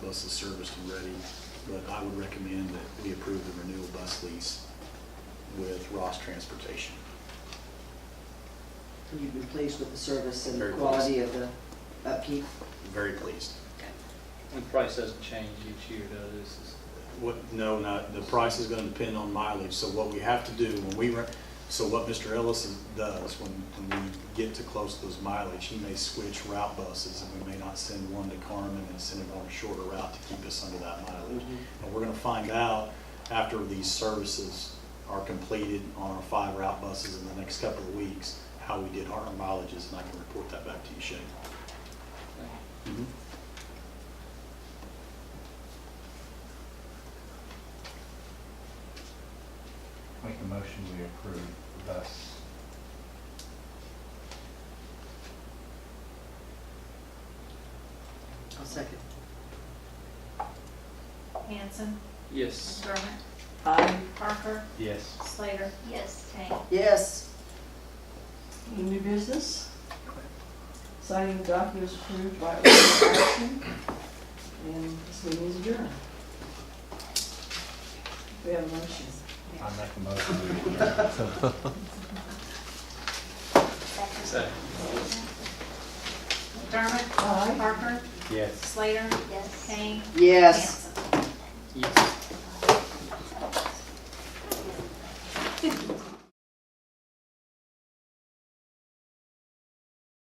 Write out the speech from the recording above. plus the service to Reading. But I would recommend that we approve the renewal bus lease with Ross Transportation. You've been pleased with the service and the Very quality of the uh, upkeep? Very pleased. The price doesn't change each year, though, this is, What, no, not, the price is gonna depend on mileage, so what we have to do when we, run- so what Mr. Ellis is- does when, when we get to close to those mileage, he may switch route buses, and we may not send one to Carmen and send it on a shorter route to keep us under that mileage. And we're gonna find out after these services are completed on our five route buses in the next couple of weeks, how we did our mileages, and I can report that back to you, Shane. Mm-hmm. Make a motion, we approve the bus. I'll second. Hanson, yes, McDermott, Aye. Parker, Yes. Slater. Yes. Kane. Yes. Any new business? Signing documents approved by order of action. And this meeting is adjourned. We have a motion. I make a motion, we adjourn. so. McDermott, Aye. Parker, Yes. Slater. Yes. Kane. Yes. Hanson. Yes.